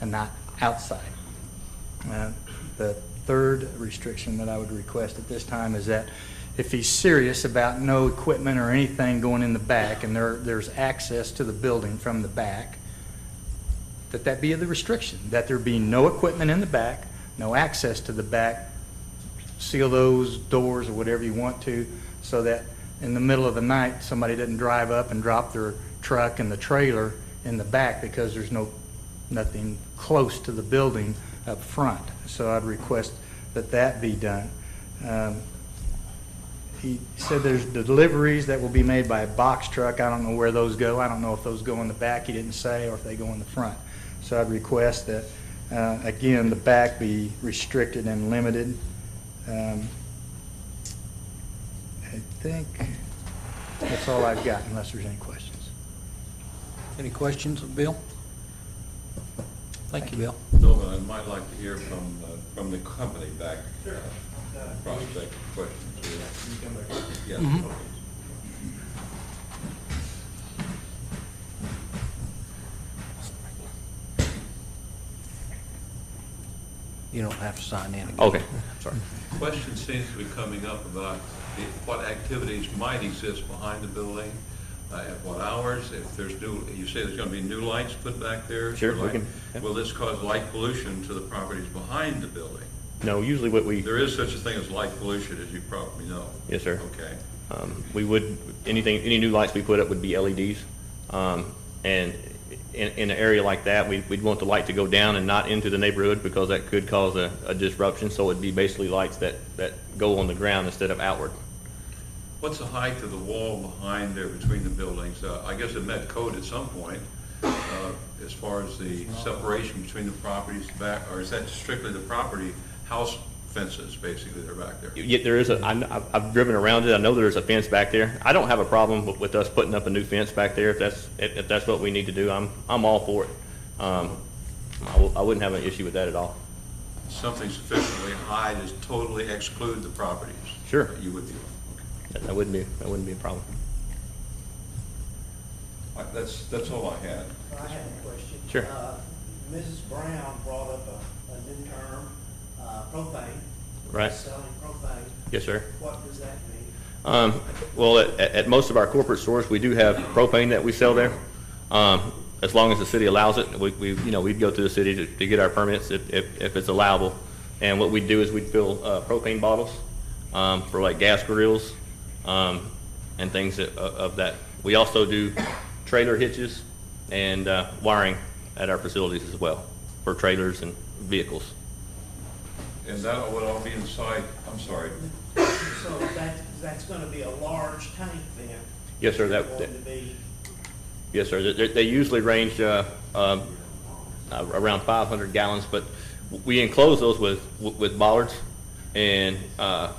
and not outside. Uh, The third restriction that I would request at this time is that if he's serious about no equipment or anything going in the back, and there, there's access to the building from the back, that that be the restriction, that there be no equipment in the back, no access to the back, seal those doors or whatever you want to, so that in the middle of the night, somebody doesn't drive up and drop their truck and the trailer in the back because there's no, nothing close to the building up front. So I'd request that that be done. Um, He said there's deliveries that will be made by a box truck. I don't know where those go. I don't know if those go in the back, he didn't say, or if they go in the front. So I'd request that, uh, again, the back be restricted and limited. Um, I think that's all I've got, unless there's any questions. Any questions of Bill? Thank you, Bill. Bill, I might like to hear from, uh, from the company back. uh, Prospect questions. Yes, Mm-hmm. okay. You don't have to sign in again. Okay, sorry. Question seems to be coming up about the- what activities might exist behind the building, uh, at what hours, if there's new, you say there's going to be new lights put back there? Sure, we Light- can- yeah. Will this cause light pollution to the properties behind the building? No, usually what we, There is such a thing as light pollution, as you probably know. Yes, sir. Okay. um, we would, anything, any new lights we put up would be LEDs. Um, and in, in an area like that, we, we'd want the light to go down and not into the neighborhood because that could cause a, a disruption. So it'd be basically lights that, that go on the ground instead of outward. What's the height of the wall behind there between the buildings? Uh, I guess it met code at some point, uh, as far as the separation between the properties back, or is that strictly the property, house fences, basically, that are back there? Yet there is a, I kn- I've, I've driven around it, I know there's a fence back there. I don't have a problem with, with us putting up a new fence back there if that's, if, if that's what we need to do. I'm, I'm all for it. Um, I, w- I wouldn't have an issue with that at all. Something sufficiently high to totally exclude the properties? Sure. You would do, okay. That, that wouldn't be, that wouldn't be a problem. All right, That's, that's all I had. I have a question. Sure. Uh, Mrs. Brown brought up a, a new term, uh, propane. Right. Selling propane. Yes, sir. What does that mean? Um, Well, at, at at most of our corporate stores, we do have propane that we sell there. Um, As long as the city allows it, we, we, you know, we'd go to the city to, to get our permits if, if, if it's allowable. And what we'd do is we'd fill uh, propane bottles um, for like gas grills um, and things of, of that. We also do trailer hitches and uh, wiring at our facilities as well for trailers and vehicles. And that would all be inside, I'm sorry, So that, that's gonna be a large tank then? Yes, sir, that- Going to be, Yes, sir. They- They they usually range uh, um, uh, around 500 gallons, but we enclose those with with bollards, and uh,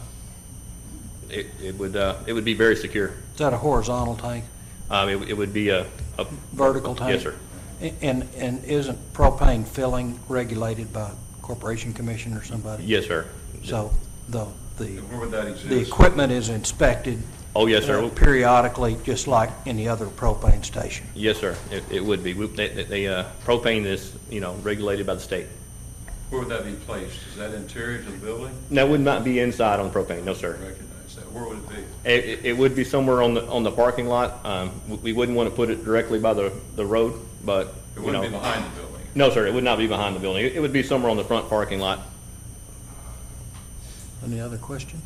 it it would, uh, it would be very secure. Is that a horizontal tank, Um, It would- it would be a... a- vertical tank? Yes, sir. A- And, and isn't propane filling regulated by Corporation Commission or somebody? Yes, sir. So the, the, where would that exist? the equipment is inspected? Oh, yes, uh, sir. Periodically, just like any other propane station? Yes, sir. It it would be. We- they- they- they, uh, Propane is, you know, regulated by the state. Where would that be placed? Is that interior to the building? That would not be inside on propane, no, sir. Recognize that. Where would it be? It, it- it would be somewhere on the, on the parking lot. Um, we- We wouldn't want to put it directly by the, the road, but, It you wouldn't be know... behind the building. No, sir, it would not be behind the building. It it would be somewhere on the front parking lot. Any other questions?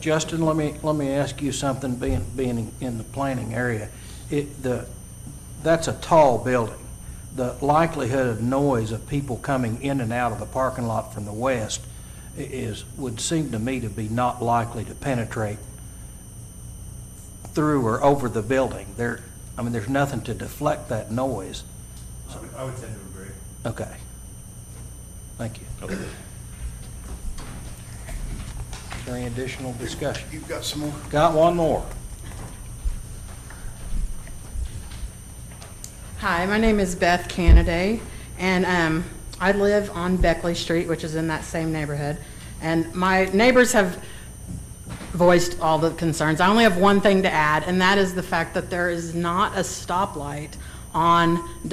Justin, let me, let me ask you something, being, being in the planning area. It, the, that's a tall building. The likelihood of noise of people coming in and out of the parking lot from the west i- is, would seem to me to be not likely to penetrate through or over the building. There, I mean, there's nothing to deflect that noise. I would tend to agree. Okay. Thank you. Is there any additional discussion? You've got some more? Got one more. Hi, my name is Beth Canaday, and um, I live on Beckley Street, which is in that same neighborhood. And my neighbors have voiced all the concerns. I only have one thing to add, and that is the fact that there is not a stoplight on